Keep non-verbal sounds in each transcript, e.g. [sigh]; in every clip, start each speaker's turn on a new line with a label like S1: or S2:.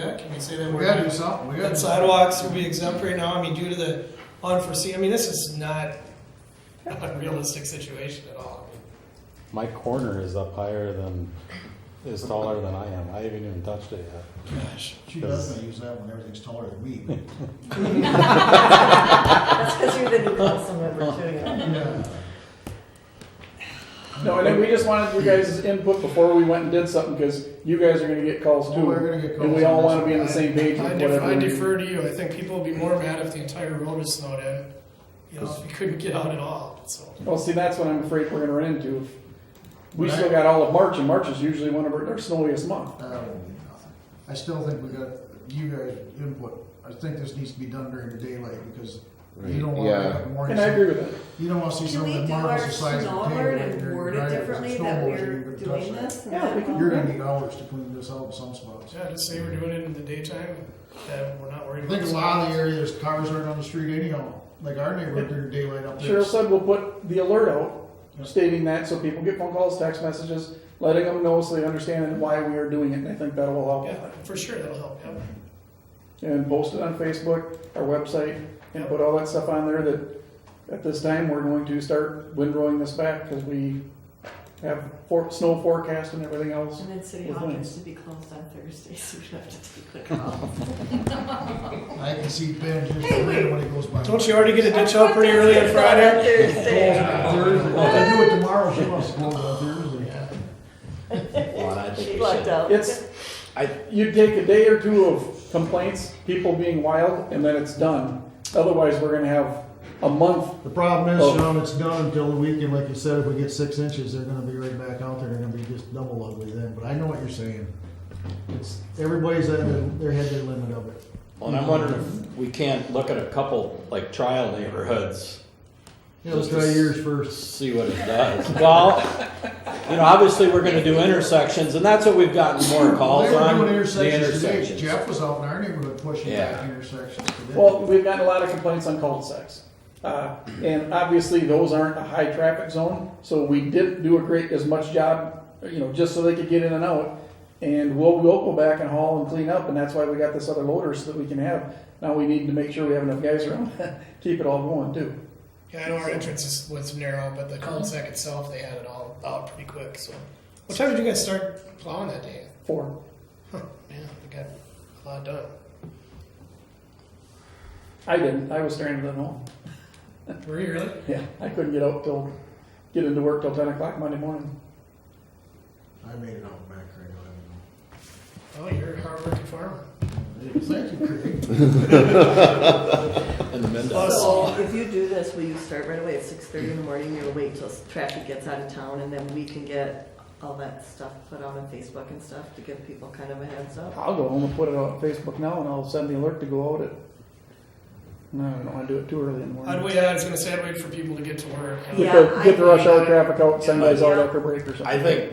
S1: can we say that
S2: We
S1: word?
S2: gotta do something, we gotta.
S1: That sidewalks will be exempt right now, I mean, due to the unforeseen, I mean, this is not a realistic situation at all.
S3: My corner is up higher than, is taller than I am. I haven't even touched it yet.
S1: Gosh.
S4: She does not use that when everything's taller than me.
S5: That's because you're the new council member too.
S2: Yeah.
S6: No, and then we just wanted your guys' input before we went and did something, because you guys are gonna get calls
S2: Well, we're
S6: too.
S2: gonna get calls.
S6: And we all
S2: on
S6: wanna
S2: this.
S6: be on the same page
S1: I
S6: with
S1: def-
S6: whatever.
S1: I
S6: we-
S1: defer to you, I think people would be more mad if the entire road was snowed in, you know, if you couldn't get out at all, so.
S6: Well, see, that's what I'm afraid we're gonna run into. We still got all of March, and March is usually one of our, our snowiest month.
S2: That won't be nothing. I still think we got, you guys input, I think this needs to be done during the daylight, because you don't wanna wake up in the morning,
S6: And I agree with that.
S2: you don't wanna see
S5: Should we
S2: something that
S5: do our
S2: marbles the size
S5: snow
S2: of the
S5: alert
S2: table.
S5: and
S2: you're
S5: word it
S2: driving with
S5: differently
S2: snow
S5: that
S2: blowers, you're
S5: we're
S2: gonna touch
S5: doing
S2: that.
S5: this? and
S6: Yeah,
S5: that
S6: we can-
S5: all?
S2: You're gonna need hours to clean this out in some spots.
S1: Yeah, just say we're doing it in the daytime, that we're not worried
S2: I
S1: about.
S2: think a lot of the areas, cars aren't on the street anyhow, like our neighborhood, during daylight up there.
S6: Cheryl said we'll put the alert out
S2: Yeah.
S6: stating that, so people get phone calls, text messages, letting them know so they understand why we are doing it, and I think that will help.
S1: Yeah, for sure, that'll help,
S2: [laughs]
S1: yeah.
S6: and post it on Facebook, our website, and put all that stuff on there that at this time, we're going to start windrowing this back because we have for, snow forecast and everything else.
S5: And then city
S6: With
S5: hall
S6: links.
S5: has to be closed on Thursday, [laughs] so we have to take a call.
S2: I can see Ben just
S5: Hey, wait.
S2: when he goes by.
S1: Don't you already get a ditch out pretty early on Friday?
S5: Thursday.
S2: Thursday. Well, if they do it tomorrow, she wants to go on Thursday.
S1: Yeah.
S7: Well, and I think
S5: She
S7: we
S5: lucked
S7: should,
S5: out.
S6: It's, you take a day or two of complaints, people being wild, and then it's done. Otherwise, we're gonna have a month.
S2: The problem is,
S6: Oh.
S2: Sean, it's done until the weekend, like you said, if we get six inches, they're gonna be right back out there, they're gonna be just double ugly then, but I know what you're saying. It's, everybody's at their, their head, their limit of it.
S7: well, and I'm wondering if we can't look at a couple, like trial neighborhoods,
S2: Yeah, let's
S7: Just
S2: try
S7: to s-
S2: yours first.
S7: see what it does. Well, you know, obviously, we're gonna do intersections, and that's what we've gotten more
S2: Well,
S7: calls
S2: They were
S7: on,
S2: doing
S7: the
S2: intersections today,
S7: intersections.
S2: Jeff was out in our neighborhood pushing back
S7: Yeah.
S2: intersections today.
S6: Well, we've gotten a lot of complaints on cul-de-sacs. Uh, and obviously, those aren't a high traffic zone, so we didn't do a great, as much job, you know, just so they could get in and out. And we'll, we'll go back and haul and clean up, and that's why we got this other loader, so that we can have, now we need to make sure we have enough guys around, [laughs] to keep it all going too.
S1: Yeah, I know our entrance is, was narrow, but the cul-de-sac itself, they had it all out pretty quick, so. What time did you guys start plowing that day?
S6: Four.
S1: Huh, man, we got a lot done.
S6: I didn't, I was stranded at home.
S1: Were you really?
S6: Yeah, I couldn't get out till, get into work till ten o'clock Monday morning.
S2: I made it out back right
S1: Oh,
S2: away.
S1: you're a hardworking farmer.
S2: Thank you, Craig.
S7: And the Mendocino.
S5: So if you do this, will you start right away at six thirty in the morning? You'll wait till traffic gets out of town and then we can get all that stuff put out on Facebook and stuff to give people kind of a heads up?
S6: I'll go home and put it on Facebook now, and I'll send the alert to go out at, no, I don't wanna do it too early in the morning.
S1: I'd wait, I was gonna say I'd wait for people to get to work.
S5: Yeah.
S6: Get the, get the rush hour traffic out, send
S7: Yeah.
S6: guys out
S5: Yeah.
S6: after break or something.
S7: I think,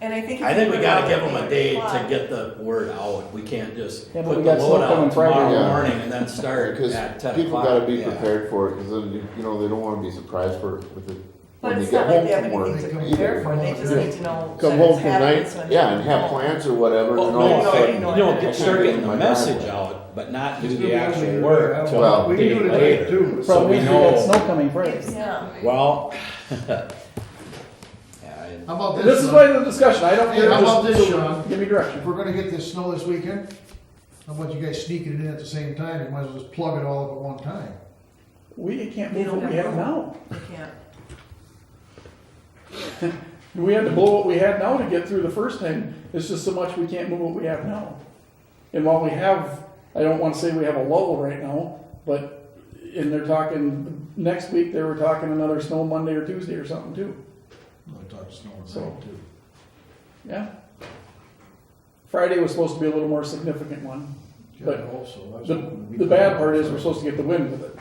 S5: And I think. if
S7: I think
S5: you
S7: we
S5: put it
S7: gotta
S5: out
S7: give
S5: at
S7: them a
S5: eight
S7: day to
S5: o'clock-
S7: get the word out, we can't just
S6: Yeah, but
S7: put
S6: we
S7: the
S6: got snow
S7: load
S6: coming
S7: out
S6: Friday.
S7: tomorrow
S8: Yeah.
S7: morning and then start
S8: Because
S7: at ten o'clock.
S8: people gotta be
S7: Yeah.
S8: prepared for it, because then, you- you know, they don't wanna be surprised for, with it.
S5: But
S8: when they
S5: it's
S8: get
S5: not like
S8: home
S5: they have
S8: from work
S5: anything to
S2: either.
S5: prepare for, they just
S2: Yeah.
S5: need to know.
S8: Come
S5: that
S8: home
S5: it's
S8: from
S5: happening
S8: night,
S5: so they
S8: yeah,
S5: can
S8: and have
S5: know.
S8: plans or whatever,
S7: Oh,
S8: and all of
S7: no,
S8: a
S5: I-
S8: sudden,
S7: you know, get, start getting the
S8: My driveway.
S7: message out, but not do the
S2: Yeah.
S7: actual work till
S8: Well,
S7: a
S2: We can
S7: day
S2: do it today
S7: later.
S2: too.
S7: So we
S6: Probably we got
S7: know,
S6: snow coming Friday.
S5: Yeah.
S7: well. [laughs] Yeah,
S2: How about this? uh,
S6: This is
S2: Sean?
S6: why the discussion, I don't
S2: Hey,
S6: care,
S2: how about
S6: just,
S2: this,
S6: so
S2: Sean?
S6: give me direction.
S2: If we're gonna get this snow this weekend, how about you guys sneaking it in at the same time, you might as well just plug it all up at one time.
S6: We can't
S5: They
S6: move
S5: don't
S6: what we
S5: have
S6: have
S5: room.
S6: now.
S5: They can't.
S6: We had to blow what we had now to get through the first time, it's just so much we can't move what we have now. And while we have, I don't wanna say we have a lull right now, but, and they're talking, next week, they were talking another snow Monday or Tuesday or something too.
S2: I talked to snow
S6: So-
S2: tonight too.
S6: Yeah. Friday was supposed to be a little more significant one. But
S2: Yeah, I hope so. That's
S6: The,
S2: what we-
S6: the bad part is we're supposed to get the wind with it.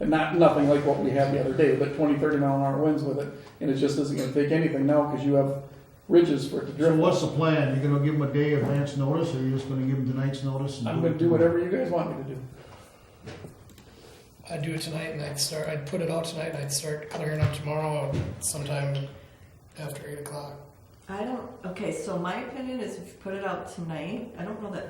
S6: And not, nothing like what we had the other day, but 20, 30 mile an hour winds with it. And it just isn't gonna take anything now because you have ridges for it to
S2: So
S6: drift.
S2: what's the plan? You gonna give them a day advance notice, or you just gonna give them tonight's notice? and
S6: I'm
S2: it
S6: gonna do whatever you guys want me to do.
S1: I'd do it tonight and I'd start, I'd put it out tonight and I'd start clearing up tomorrow sometime after eight o'clock.
S5: I don't, okay, so my opinion is if you put it out tonight, I don't know that